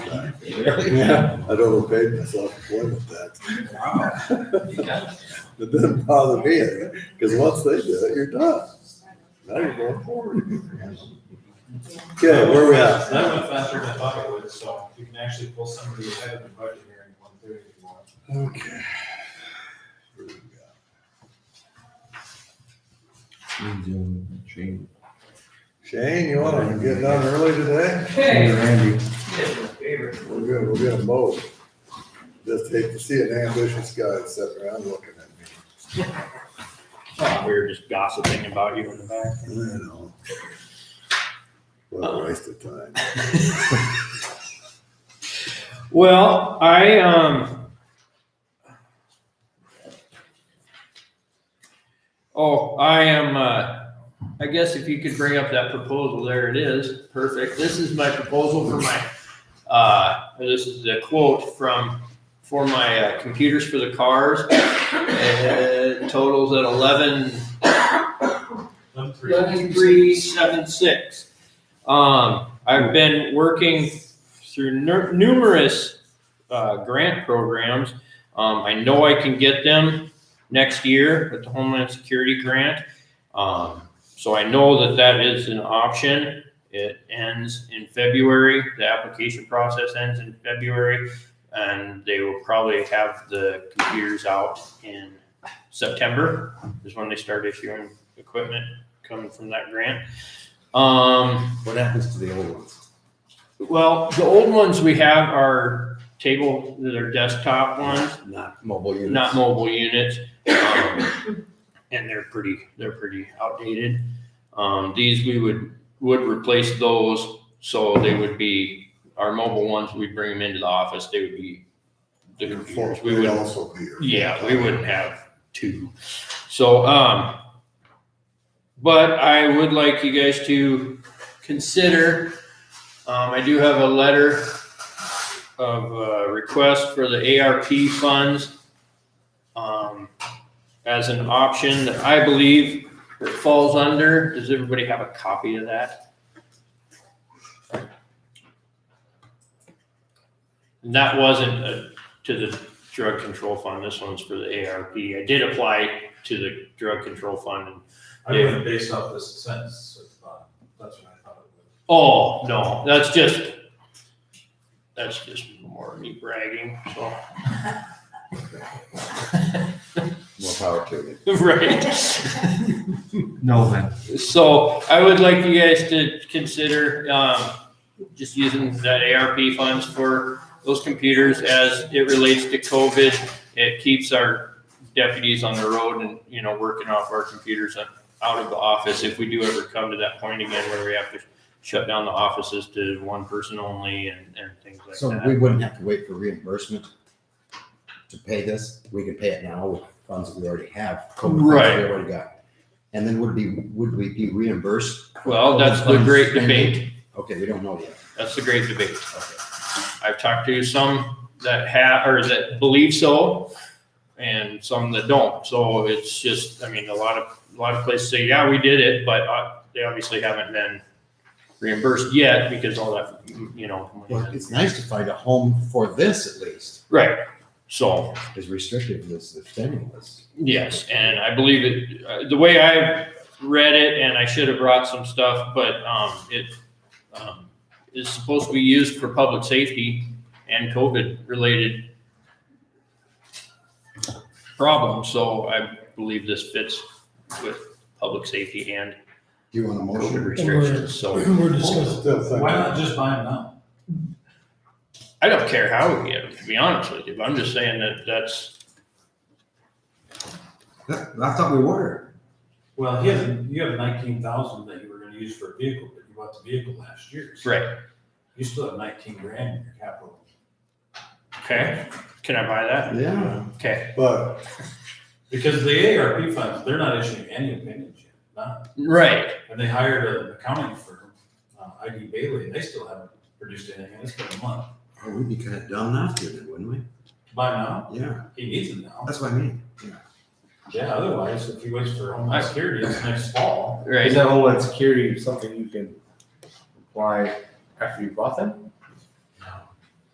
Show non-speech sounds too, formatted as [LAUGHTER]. Yeah, I don't overpaid myself employment tax. Wow. [LAUGHS] It doesn't bother me, because once they do it, you're done. Now you're going forward. Okay, where we at? That went faster than I thought it would, so you can actually pull somebody ahead of the budget hearing one thirty if you want. Okay. Where we at? Shane. Shane, you wanna get done early today? Hey, Randy. We're good, we're gonna mow. Just hate to see an ambitious guy sitting around looking at me. We were just gossiping about you in the back. I know. What a waste of time. Well, I, um. Oh, I am, uh, I guess if you could bring up that proposal, there it is, perfect. This is my proposal for my, uh, this is the quote from, for my uh, computers for the cars. It totals at eleven One three. eleven three seven six. Um, I've been working through nu- numerous uh, grant programs. Um, I know I can get them next year with the Homeland Security grant. Um, so I know that that is an option. It ends in February. The application process ends in February, and they will probably have the computers out in September. Is when they start issuing equipment coming from that grant. Um, What happens to the old ones? well, the old ones we have are table, they're desktop ones, Not mobile units. not mobile units. Um, And they're pretty, they're pretty outdated. Um, these we would, would replace those, so they would be, our mobile ones, we'd bring them into the office, they would be the computers, we We'd would also be here. yeah, we wouldn't have two. So, um, but I would like you guys to consider, um, I do have a letter of, uh, request for the ARP funds, um, as an option that I believe it falls under. Does everybody have a copy of that? And that wasn't uh, to the drug control fund. This one's for the ARP. I did apply to the drug control fund and I went based off this sentence of, uh, that's what I thought it Oh, no, that's just, that's just more me bragging, so. More power to it. [LAUGHS] [LAUGHS] Right, No, man. so I would like you guys to consider, um, just using that ARP funds for those computers as it relates to COVID. It keeps our deputies on the road and, you know, working off our computers and out of the office. If we do ever come to that point again where we have to shut down the offices to one person only and, and things like that. So we wouldn't have to wait for reimbursement to pay this. We could pay it now with funds that we already have. COVID funds that Right. We already got. And then would be, would we be reimbursed? Well, that's the great debate. Okay, we don't know yet. That's the great debate. I've talked to some that have, or that believe so, and some that don't. So it's just, I mean, a lot of, a lot of places say, yeah, we did it, but uh, they obviously haven't been reimbursed yet because all that, you know. money Well, hasn't- it's nice to find a home for this at least, Right. So, as restrictive as the thing was. yes, and I believe it, uh, the way I read it, and I should have brought some stuff, but um, it um, is supposed to be used for public safety and COVID-related problems, so I believe this fits with public safety and Do you want a COVID motion? restrictions, so we're discussing. Still was. thinking. Why not just buy them now? I don't care how we get them, to be honest with you, but I'm just saying that that's, That- [LAUGHS] I thought we were. Well, he has, you have nineteen thousand that you were gonna use for a vehicle, but you bought the vehicle last year. so right, You still have nineteen grand in your capital. okay? Can I buy that? Yeah. Okay, But Because the ARP funds, they're not issuing any opinions yet, none. right, And they hired an accounting firm, uh, ID Bailey, and they still haven't produced anything, and it's been a month. Oh, We'd be kind of dumb not to then, wouldn't we? By now, Yeah, he needs them now. that's what I mean. Yeah, otherwise, if he waits for homeland security, it's next fall. right. Is that Homeland Security something you can apply after you bought them?